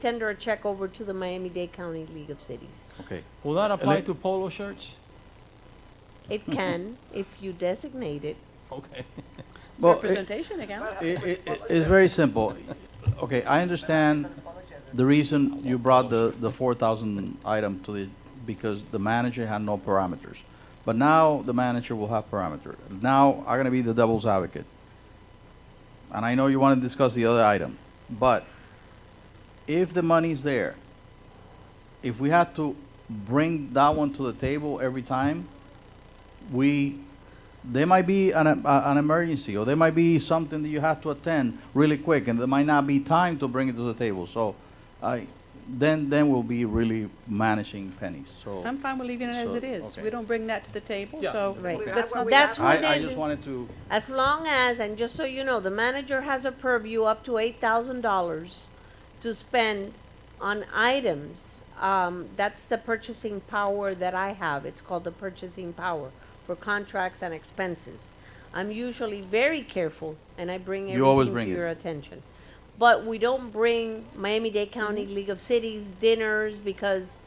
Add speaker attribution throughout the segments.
Speaker 1: tender a check over to the Miami-Dade County League of Cities.
Speaker 2: Okay.
Speaker 3: Will that apply
Speaker 2: let-
Speaker 3: to polo shirts?
Speaker 1: It
Speaker 2: Mm-hmm.
Speaker 1: can, if you designate it.
Speaker 3: Okay.
Speaker 2: Well, it,
Speaker 4: Representation again.
Speaker 2: it, it- it's very simple. Okay, I understand the reason you brought the, the four thousand item to the, because the manager had no parameters. But now the manager will have parameter. Now I'm gonna be the devil's advocate. And I know you wanna discuss the other item, but if the money's there, if we had to bring that one to the table every time, we, there might be an, a- an emergency, or there might be something that you have to attend really quick, and there might not be time to bring it to the table, so, I, then, then we'll be really managing pennies, so.
Speaker 4: I'm fine with leaving it as
Speaker 2: So,
Speaker 4: it is.
Speaker 2: okay.
Speaker 4: We don't bring that to the table,
Speaker 3: Yeah.
Speaker 4: so
Speaker 1: Right.
Speaker 4: that's not.
Speaker 1: That's
Speaker 2: I,
Speaker 1: what
Speaker 2: I
Speaker 1: they
Speaker 2: just
Speaker 1: do.
Speaker 2: wanted to,
Speaker 1: As long as, and just so you know, the manager has a purview up to eight thousand dollars to spend on items. Um, that's the purchasing power that I have. It's called the purchasing power for contracts and expenses. I'm usually very careful and I bring
Speaker 2: You always
Speaker 1: everything to
Speaker 2: bring it.
Speaker 1: your attention. But we don't bring Miami-Dade County
Speaker 2: Mm-hmm.
Speaker 1: League of Cities dinners because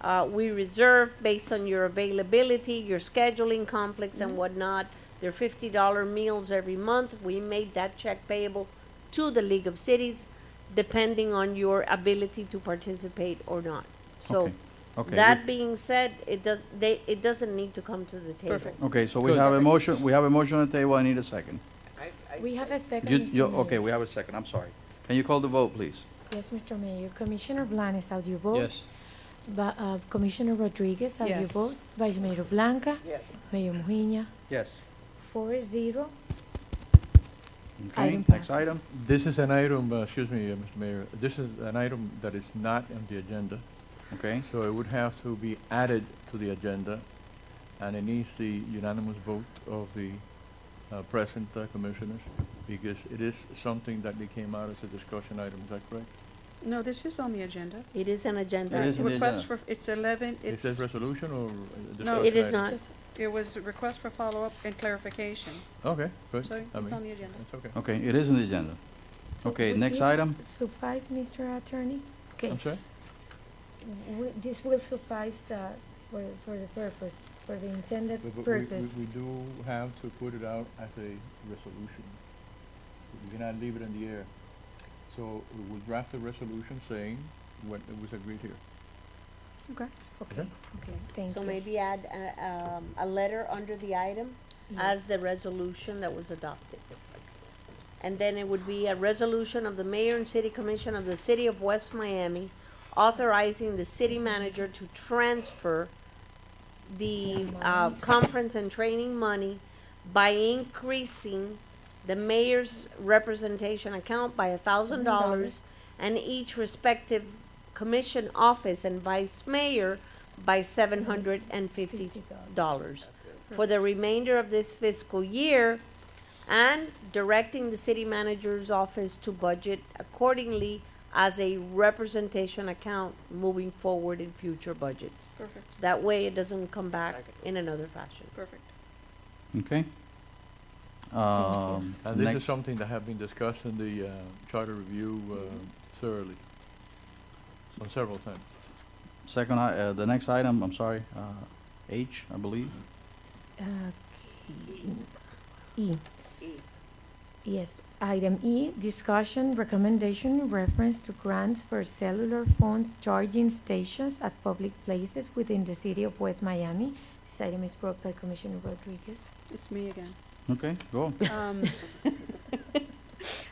Speaker 1: uh, we reserve based on your availability, your scheduling conflicts
Speaker 2: Mm-hmm.
Speaker 1: and whatnot. They're fifty dollar meals every month. We made that check payable to the League of Cities, depending on your ability to participate or not. So,
Speaker 2: Okay, okay.
Speaker 1: that being said, it does, they, it doesn't need to come to the table.
Speaker 4: Perfect.
Speaker 2: okay, so we
Speaker 3: Good.
Speaker 2: have a motion, we have a motion on the table, I need a second.
Speaker 5: We have a second,
Speaker 2: You,
Speaker 5: Mr.
Speaker 2: you,
Speaker 5: Mayor.
Speaker 2: okay, we have a second, I'm sorry. Can you call the vote, please?
Speaker 5: Yes, Mr. Mayor. Commissioner Blanes, how do you vote?
Speaker 3: Yes.
Speaker 5: Ba- uh, Commissioner Rodriguez, how do you
Speaker 4: Yes.
Speaker 5: vote? Vice Mayor Blanca?
Speaker 6: Yes.
Speaker 5: Mayor Mujina?
Speaker 2: Yes.
Speaker 5: Four zero.
Speaker 2: Okay,
Speaker 5: Item
Speaker 2: next
Speaker 5: passes.
Speaker 2: item,
Speaker 7: This is an item, uh, excuse me, uh, Mr. Mayor, this is an item that is not on the agenda,
Speaker 2: okay,
Speaker 7: so it would have to be added to the agenda, and it needs the unanimous vote of the uh, present uh, commissioners, because it is something that they came out as a discussion item, is that correct?
Speaker 4: No, this is on the agenda.
Speaker 1: It is an
Speaker 2: It
Speaker 1: agenda.
Speaker 2: is on the
Speaker 4: Request
Speaker 2: agenda.
Speaker 4: for, it's eleven,
Speaker 7: Is
Speaker 4: it's,
Speaker 7: this resolution or uh, discussion
Speaker 4: No,
Speaker 1: It is
Speaker 7: item?
Speaker 1: not.
Speaker 4: it was a request for follow-up and clarification.
Speaker 7: Okay, good.
Speaker 4: So
Speaker 7: I
Speaker 4: it's
Speaker 7: mean,
Speaker 4: on the agenda.
Speaker 7: It's okay.
Speaker 2: okay, it is on the agenda.
Speaker 5: So
Speaker 2: Okay,
Speaker 5: will
Speaker 2: next
Speaker 5: this
Speaker 2: item.
Speaker 5: Suffice, Mr. Attorney? Okay,
Speaker 7: I'm sorry?
Speaker 5: w- this will suffice uh, for, for the purpose, for the intended
Speaker 7: But- but we- we-
Speaker 5: purpose.
Speaker 7: We do have to put it out as a resolution. We cannot leave it in the air. So we will draft a resolution saying what it was agreed here.
Speaker 4: Okay.
Speaker 5: Okay, okay, thank you.
Speaker 1: So maybe add a, um, a letter under the item as the resolution that was adopted. And then it would be a resolution of the mayor and city commission of the city of West Miami authorizing the city manager to transfer the, uh, conference and training money by increasing the mayor's representation account by a thousand dollars and each respective commission office and vice mayor by seven hundred and fifty dollars for the remainder of this fiscal year and directing the city manager's office to budget accordingly as a representation account moving forward in future budgets.
Speaker 4: Perfect,
Speaker 1: That way it doesn't come back in another fashion.
Speaker 4: perfect.
Speaker 2: Okay. Um,
Speaker 7: And Uh, this
Speaker 2: next-
Speaker 7: is something that have been discussed in the uh, charter review uh, thoroughly, on several times.
Speaker 2: second, i- uh, the next item, I'm sorry, uh, H, I believe.
Speaker 5: Okay. E. Yes, item E, discussion, recommendation in reference to grants for cellular phone charging stations at public places within the city of West Miami. This item is brought by Commissioner Rodriguez.
Speaker 4: It's me again.
Speaker 2: Okay, go.
Speaker 4: Um,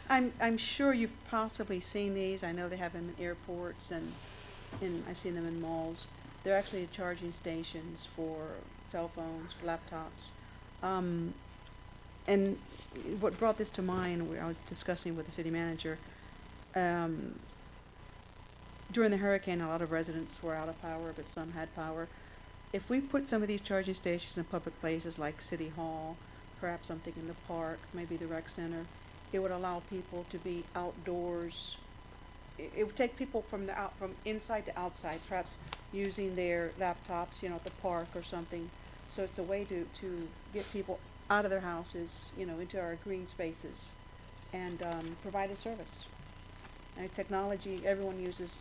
Speaker 4: I'm, I'm sure you've possibly seen these. I know they have them in airports and, and I've seen them in malls. They're actually charging stations for cell phones, for laptops. Um, and what brought this to mind, where I was discussing with the city manager, um, during the hurricane, a lot of residents were out of power, but some had power. If we put some of these charging stations in public places like City Hall, perhaps something in the park, maybe the rec center. It would allow people to be outdoors. It, it would take people from the out, from inside to outside, perhaps using their laptops, you know, at the park or something. So it's a way to, to get people out of their houses, you know, into our green spaces and, um, provide a service. Uh, technology, everyone uses